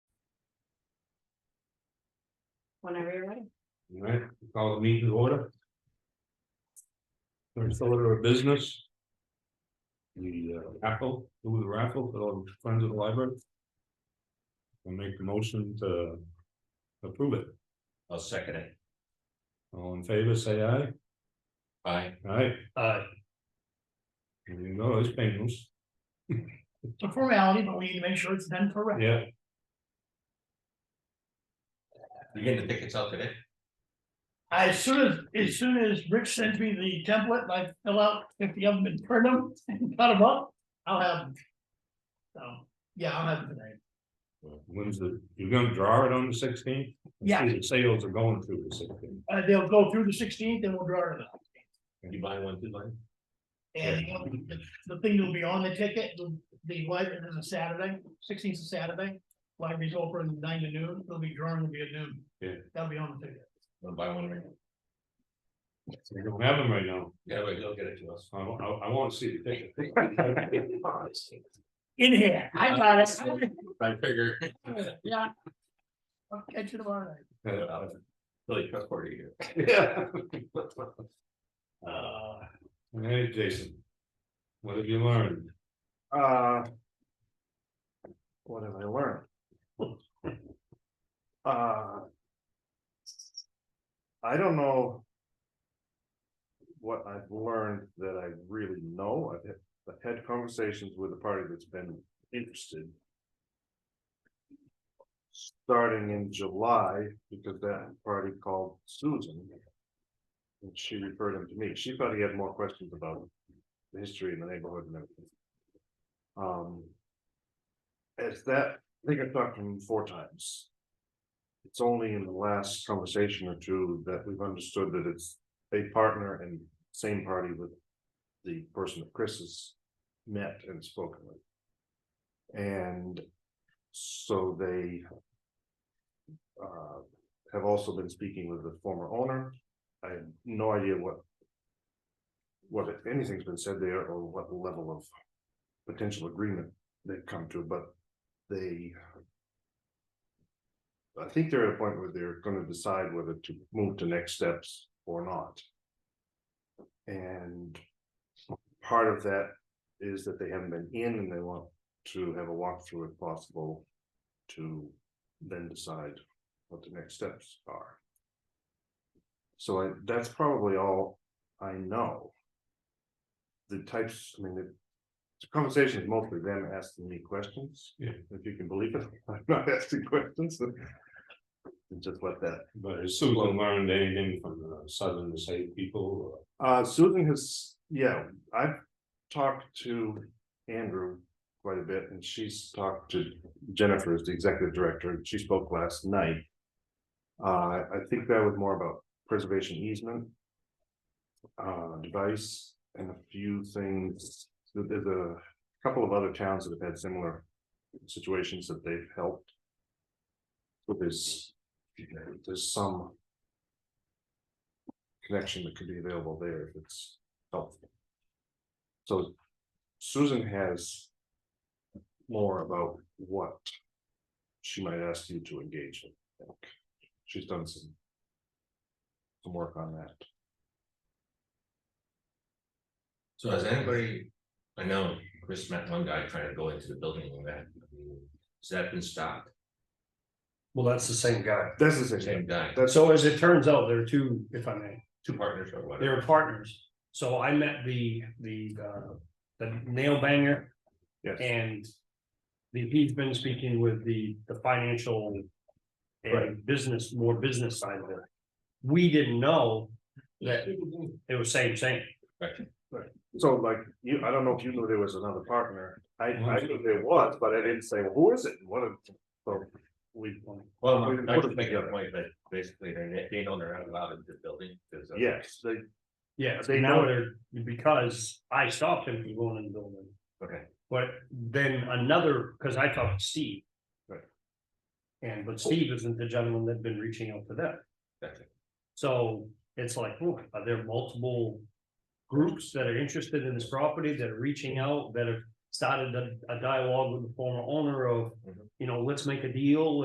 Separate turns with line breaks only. whenever you're ready.
All right, we call the meeting to order. First order of business. The uh, raffle, do the raffle for all the friends of the library. We'll make the motion to approve it.
I'll second it.
All in favor, say aye.
Aye.
Aye.
Aye.
You know, it's painless.
It's a formality, but we need to make sure it's done correctly.
Yeah,
You getting the tickets out today?
As soon as, as soon as Rick sends me the template, and I fill out fifty of them and print them and cut them up, I'll have them. So, yeah, I'll have them tonight.
when's the, you're gonna draw it on the sixteenth?
Yeah.
Sales are going through the sixteenth.
Uh, they'll go through the sixteenth and we'll draw it up.
You buy one, two line?
And the- the thing that'll be on the ticket, the, the library is a Saturday, sixteenth is a Saturday. Library's open nine to noon, it'll be drawn, it'll be at noon.
Yeah.
That'll be on the ticket.
Wanna buy one, right?
We don't have them right now.
yeah, but they'll get it to us.
I, I, I want to see the picture.
In here.
I got it.
I figure.
Yeah. I'll catch you tomorrow night.
Really trustworthy here.
Yeah.
Uh,
Hey, Jason. What have you learned?
Uh. What have I learned? Uh. I don't know. What I've learned that I really know, I've had, I've had conversations with a party that's been interested. Starting in July, because that party called Susan. And she referred him to me, she thought he had more questions about the history in the neighborhood and everything. Um. It's that, I think I've talked to him four times. It's only in the last conversation or two that we've understood that it's a partner and same party with. The person that Chris has met and spoken with. And so they. Uh, have also been speaking with the former owner. I have no idea what. What if anything's been said there or what level of potential agreement they've come to, but they. I think they're at a point where they're gonna decide whether to move to next steps or not. And part of that is that they haven't been in and they want to have a walkthrough if possible. To then decide what the next steps are. So I, that's probably all I know. The types, I mean, the the conversation is mostly them asking me questions.
Yeah.
If you can believe it, I'm not asking questions. And just let that.
But has Susan learned anything from the southern state people?
Uh, Susan has, yeah, I've talked to Andrew quite a bit and she's talked to Jennifer as the executive director. and She spoke last night. Uh, I think that was more about preservation easement. Uh, device and a few things. There- There's a couple of other towns that have had similar situations that they've helped. But there's, there's some connection that could be available there if it's helpful. So Susan has more about what she might ask you to engage in. I think. She's done some some work on that.
so has anybody, I know Chris met one guy trying to go into the building and that, has that been stopped?
Well, that's the same guy.
That's the same.
Same guy,
That's
So as it turns out, there are two, if I may,
two partners or
they
whatever.
are partners. So I met the, the, uh, the nail banger
Yes.
and the, he's been speaking with the, the financial and
Right.
business, more business side of it. We didn't know that it was same, same.
so like you, I don't know if you knew there was another partner. I I knew there was, but I didn't say, well, who is it? and What? it- So we,
Well,
We didn't
I
put
was
it
making a
together.
point that basically they, they know they're not allowed in the building. 'cause of-
yes, they,
Yeah,
They
now
know-
they're, because I stopped him from going in the building.
Okay,
But then another, because I talked to Steve.
Right.
And but Steve isn't the gentleman that'd been reaching out to them.
Gotcha.
So it's like, look, are there multiple groups that are interested in this property that are reaching out, that have started a, a dialogue with the former owner of,
Mhm.
you know, let's make a deal